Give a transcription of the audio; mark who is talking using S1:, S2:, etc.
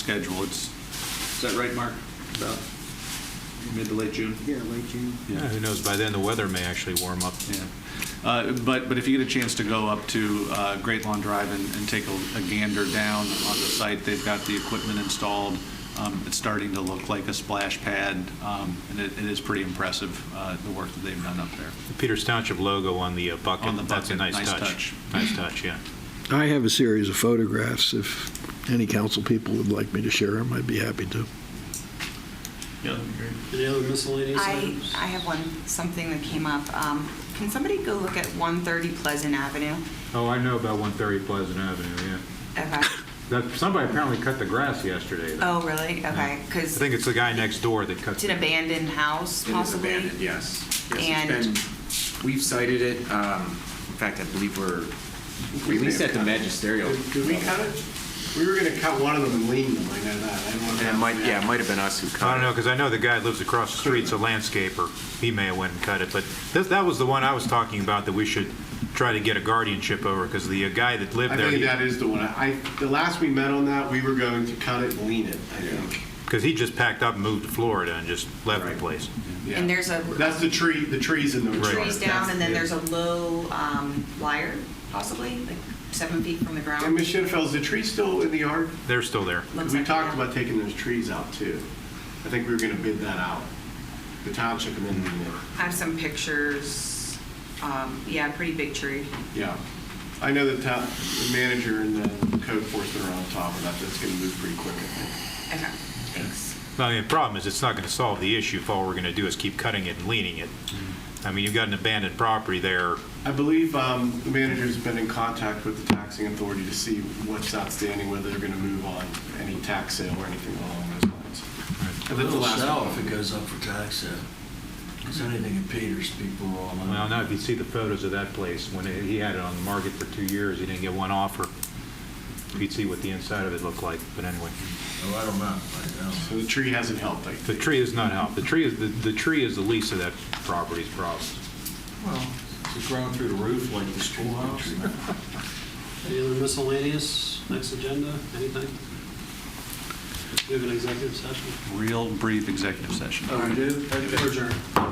S1: schedule. It's, is that right, Mark? About mid to late June?
S2: Yeah, late June.
S1: Yeah.
S3: Yeah, who knows, by then the weather may actually warm up.
S1: Yeah. Uh, But, but if you get a chance to go up to uh, Great Lawn Drive and and take a a gander down on the site, they've got the equipment installed. Um, It's starting to look like a splash pad, um, and it it is pretty impressive, uh, the work that they've done up there.
S3: The Peters Township logo on the uh, bucket.
S1: On the
S3: That's a
S1: bucket,
S3: nice
S1: nice touch.
S3: touch. Nice touch, yeah.
S4: I have a series of photographs. If any council people would like me to share them, I'd be happy to.
S5: Any other miscellaneous
S6: I,
S5: items?
S6: I have one, something that came up. Um, Can somebody go look at 130 Pleasant Avenue?
S3: Oh, I know about 130 Pleasant Avenue, yeah.
S6: Okay.
S3: That, somebody apparently cut the grass yesterday. though.
S6: Oh, really? Okay,
S3: I
S6: because
S3: think it's the guy next door that cut.
S6: it's an abandoned house,
S7: It is
S6: possibly?
S7: abandoned, yes. Yes, it's
S6: And-
S7: been- We've cited it, um, in fact, I believe we're, we least at the magisterial.
S5: Did did we cut it? We were going to cut one of them and lean them, I know that. I don't know if
S7: And it
S5: that-
S7: might, yeah, it might have been us who cut it.
S3: I don't know, because I know the guy lives across the street, so landscaper, he may have went and cut it, but that, that was the one I was talking about that we should try to get a guardianship over, because the uh, guy that lived
S5: I
S3: there.
S5: think that is the one. I, the last we met on that, we were going to cut it and lean it, I think.
S3: Because he just packed up and moved to Florida and just left the
S5: Right.
S3: place.
S5: Yeah.
S6: And there's a-
S5: That's the tree, the trees in the.
S3: Right.
S6: Trees down, and then there's a low um, wire, possibly, like seven feet from the
S5: And
S6: ground?
S5: Ms. Shinfeld, is the tree still in the yard?
S3: They're still there.
S6: Looks
S5: We
S6: like
S5: talked
S6: it.
S5: about taking those trees out too. I think we were going to bid that out. The township and then,
S6: I have some pictures. Um, Yeah, pretty big tree.
S5: yeah. I know the town, the manager and the code enforcement are on top of that. That's going to move pretty quick, I think.
S6: Okay, thanks.
S3: I mean, the problem is, it's not going to solve the issue if all we're going to do is keep cutting it and leaning it. I mean, you've got an abandoned property there.
S5: I believe um, the manager's been in contact with the taxing authority to see what's outstanding, whether they're going to move on any tax sale or anything along those lines. And that's the
S8: It'll
S5: last
S8: sell
S5: one.
S8: Oh, if it goes up for tax sale. Because anything in Peters, people are all in.
S3: Well, now, if you see the photos of that place, when it- he had it on the market for two years, he didn't get one offer. You'd see what the inside of it looked like, but anyway.
S8: Oh, I don't know. I don't know.
S5: So the tree hasn't helped, I
S3: The
S5: think.
S3: tree is not help. The tree is, the the tree is the least of that property's problems.
S8: Well, it's grown through the roof like the schoolhouse.
S9: Any other miscellaneous, next agenda, anything? We have an executive session.
S1: Real brief executive session.
S9: Oh, we do? Adjourn.